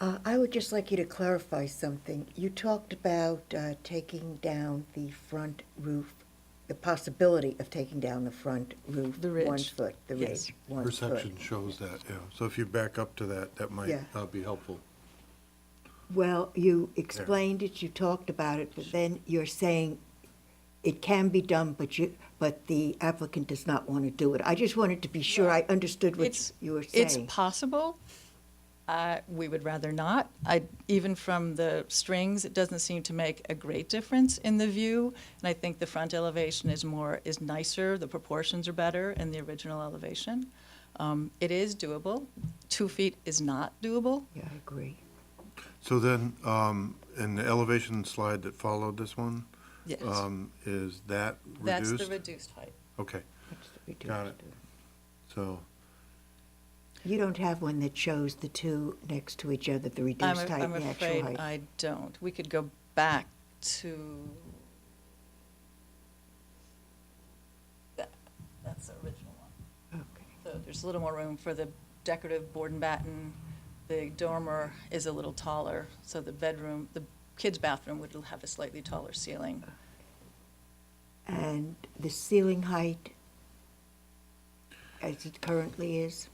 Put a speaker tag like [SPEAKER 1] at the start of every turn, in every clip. [SPEAKER 1] Uh, I would just like you to clarify something. You talked about uh, taking down the front roof, the possibility of taking down the front roof.
[SPEAKER 2] The ridge.
[SPEAKER 1] One foot, the
[SPEAKER 2] Yes.
[SPEAKER 1] ridge, one foot.
[SPEAKER 3] Perception shows that, yeah. So if you back up to that, that might
[SPEAKER 1] Yeah.
[SPEAKER 3] uh, be helpful.
[SPEAKER 1] Well, you explained it, you talked about it, but then you're saying it can be done, but you, but the applicant does not want to do it. I just wanted to be sure I understood what
[SPEAKER 2] It's-
[SPEAKER 1] you were
[SPEAKER 2] It's
[SPEAKER 1] saying.
[SPEAKER 2] possible. Uh, We would rather not. I, even from the strings, it doesn't seem to make a great difference in the view. And I think the front elevation is more, is nicer, the proportions are better in the original elevation. Um, It is doable. Two feet is not doable.
[SPEAKER 1] Yeah, I agree.
[SPEAKER 3] So then, um, in the elevation slide that followed this one,
[SPEAKER 2] Yes.
[SPEAKER 3] um, is that
[SPEAKER 2] That's the
[SPEAKER 3] reduced?
[SPEAKER 2] reduced height.
[SPEAKER 3] Okay,
[SPEAKER 1] That's the reduced.
[SPEAKER 3] Got it. so,
[SPEAKER 1] You don't have one that shows the two next to each other, the
[SPEAKER 2] I'm
[SPEAKER 1] reduced
[SPEAKER 2] a-
[SPEAKER 1] height and the
[SPEAKER 2] I'm
[SPEAKER 1] actual
[SPEAKER 2] afraid
[SPEAKER 1] height.
[SPEAKER 2] I don't. We could go back to. that- That's the original one.
[SPEAKER 1] Okay.
[SPEAKER 2] So there's a little more room for the decorative board and batten. The dormer is a little taller, so the bedroom, the kids' bathroom would have a slightly taller ceiling.
[SPEAKER 1] And the ceiling height, as it currently is,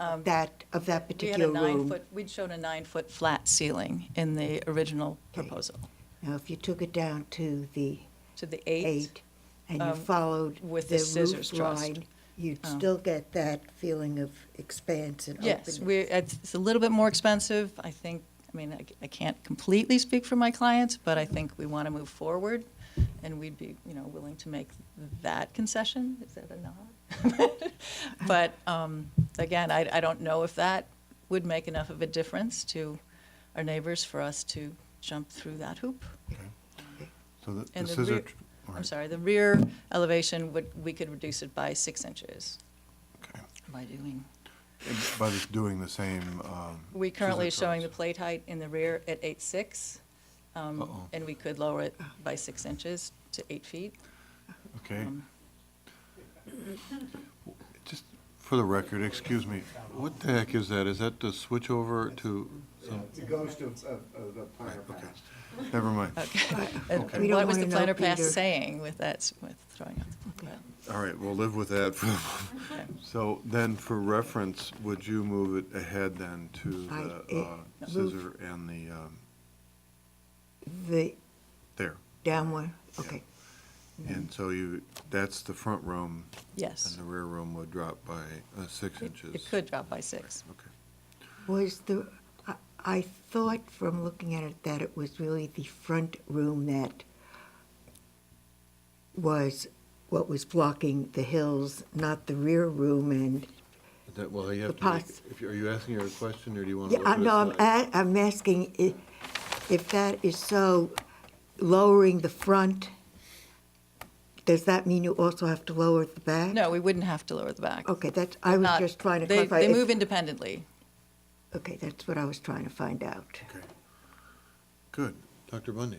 [SPEAKER 1] of that, of that
[SPEAKER 2] Um, We had a
[SPEAKER 1] particular room?
[SPEAKER 2] nine-foot, we'd shown a nine-foot flat ceiling in the original
[SPEAKER 1] Okay.
[SPEAKER 2] proposal.
[SPEAKER 1] Now, if you took it down to the
[SPEAKER 2] To the eight,
[SPEAKER 1] eight, and you
[SPEAKER 2] um,
[SPEAKER 1] followed
[SPEAKER 2] with the
[SPEAKER 1] the
[SPEAKER 2] scissors
[SPEAKER 1] roof
[SPEAKER 2] trussed.
[SPEAKER 1] line, you'd
[SPEAKER 2] Oh.
[SPEAKER 1] still get that feeling of expanse and openness?
[SPEAKER 2] yes, we, it's it's a little bit more expensive. I think, I mean, I c- I can't completely speak for my clients, but I think we want to move forward, and we'd be, you know, willing to make that concession. Is that a nod? But um, again, I, I don't know if that would make enough of a difference to our neighbors for us to jump through that hoop.
[SPEAKER 3] so the- the
[SPEAKER 2] And the
[SPEAKER 3] scissor,
[SPEAKER 2] rear-
[SPEAKER 3] tr- all
[SPEAKER 2] I'm
[SPEAKER 3] right,
[SPEAKER 2] sorry, the rear elevation would, we could reduce it by six inches
[SPEAKER 3] okay.
[SPEAKER 2] by doing.
[SPEAKER 3] And By just doing the same, um.
[SPEAKER 2] We currently are
[SPEAKER 3] scissor
[SPEAKER 2] showing the
[SPEAKER 3] cuts.
[SPEAKER 2] plate height in the rear at eight six, um,
[SPEAKER 3] Uh-oh.
[SPEAKER 2] and we could lower it by six inches to eight feet.
[SPEAKER 3] Okay.
[SPEAKER 2] um,
[SPEAKER 3] Just for the record, excuse me, what the heck is that? Is that the switch over to some,
[SPEAKER 4] It goes to, uh, uh, the planner
[SPEAKER 3] okay.
[SPEAKER 4] pass.
[SPEAKER 3] never mind.
[SPEAKER 2] And
[SPEAKER 3] Okay.
[SPEAKER 1] We don't
[SPEAKER 2] Uh, What was the
[SPEAKER 1] wanna know,
[SPEAKER 2] planner pass
[SPEAKER 1] Peter.
[SPEAKER 2] saying with that, s- with throwing out the, well,
[SPEAKER 3] All right, we'll live with that. So then, for reference, would you move it ahead then to
[SPEAKER 1] I-
[SPEAKER 3] the
[SPEAKER 1] it-
[SPEAKER 3] uh,
[SPEAKER 1] move-
[SPEAKER 3] scissor and the, um,
[SPEAKER 1] The
[SPEAKER 3] there?
[SPEAKER 1] downward, okay.
[SPEAKER 3] And so you, that's the front room, and
[SPEAKER 2] yes.
[SPEAKER 3] the rear room would drop by uh, six
[SPEAKER 2] It-
[SPEAKER 3] inches.
[SPEAKER 2] It could drop by six.
[SPEAKER 3] Okay.
[SPEAKER 1] Was the, I- I thought from looking at it that it was really the front room that was what was blocking the hills, not the rear room and,
[SPEAKER 3] Is That, well, you have
[SPEAKER 1] The
[SPEAKER 3] to make,
[SPEAKER 1] pos-
[SPEAKER 3] if you- are you asking her a question, or do you want to
[SPEAKER 1] yeah,
[SPEAKER 3] look
[SPEAKER 1] I-
[SPEAKER 3] at a
[SPEAKER 1] no, I'm,
[SPEAKER 3] slide?
[SPEAKER 1] a- I'm asking i- if that is so, lowering the front, does that mean you also have to lower the back?
[SPEAKER 2] No, we wouldn't have to lower the back.
[SPEAKER 1] Okay, that's, I was
[SPEAKER 2] Not-
[SPEAKER 1] just trying to
[SPEAKER 2] they-
[SPEAKER 1] clarify.
[SPEAKER 2] They
[SPEAKER 1] if-
[SPEAKER 2] move independently.
[SPEAKER 1] Okay, that's what I was trying to find out.
[SPEAKER 3] Okay. Good. Dr. Bundy?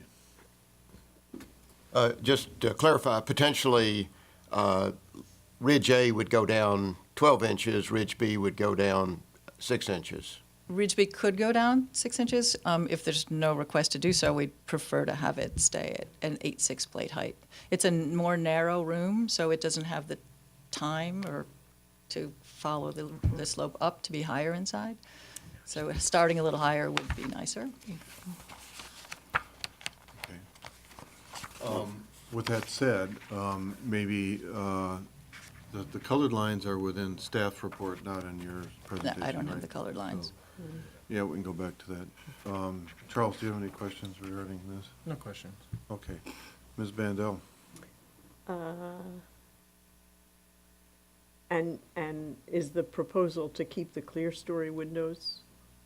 [SPEAKER 5] Uh, Just to clarify, potentially, uh, Ridge A would go down 12 inches, Ridge B would go down 6 inches.
[SPEAKER 2] Ridgeby could go down six inches. Um, if there's no request to do so, we'd prefer to have it stay at an eight-six plate height. It's a n- more narrow room, so it doesn't have the time or to follow the, the slope up to be higher inside. So starting a little higher would be nicer.
[SPEAKER 3] Okay. Um, With that said, um, maybe uh, the the colored lines are within staff report, not in your presentation,
[SPEAKER 2] I don't have
[SPEAKER 3] right?
[SPEAKER 2] the colored lines.
[SPEAKER 3] So, Oh. Yeah, we can go back to that. Um, Charles, do you have any questions regarding this?
[SPEAKER 6] No questions.
[SPEAKER 3] Okay. Ms. Bandel?
[SPEAKER 7] And, and is the proposal to keep the clear story windows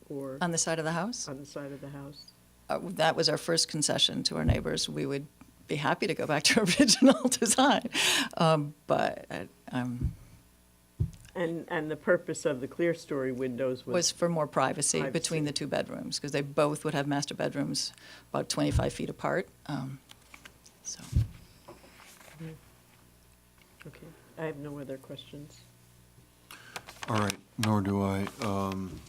[SPEAKER 7] or
[SPEAKER 2] On the side of the house?
[SPEAKER 7] on the side of the house?
[SPEAKER 2] uh, that was our first concession to our neighbors. We would be happy to go back to our original design, um, but uh, um,
[SPEAKER 7] And, and the purpose of the clear story windows
[SPEAKER 2] was
[SPEAKER 7] was,
[SPEAKER 2] for more privacy between
[SPEAKER 7] Privacy.
[SPEAKER 2] the two bedrooms because they both would have master bedrooms about 25 feet apart. Um, so
[SPEAKER 7] okay, I have no other questions.
[SPEAKER 3] All right, nor do I. Um,